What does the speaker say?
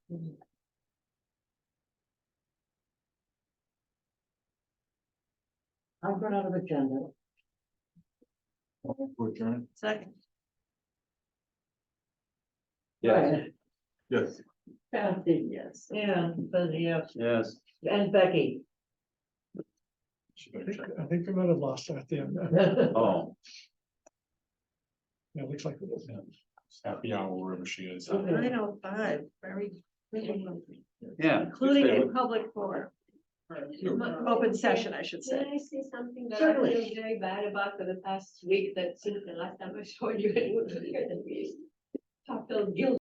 I've run out of agenda. Motion to adjourn? Second. Yes, yes, Kathy, yes, and Betty, yes, yes. and Becky. I think, I think we might have lost her at the end. Oh, Yeah, It looks like it was. happy hour wherever she is. Nine oh five, very. yeah. Including a public forum, open session, I should Can say. I say something that I Certainly. feel very bad about for the past week that since the last time I saw you, it was here that we I felt guilty.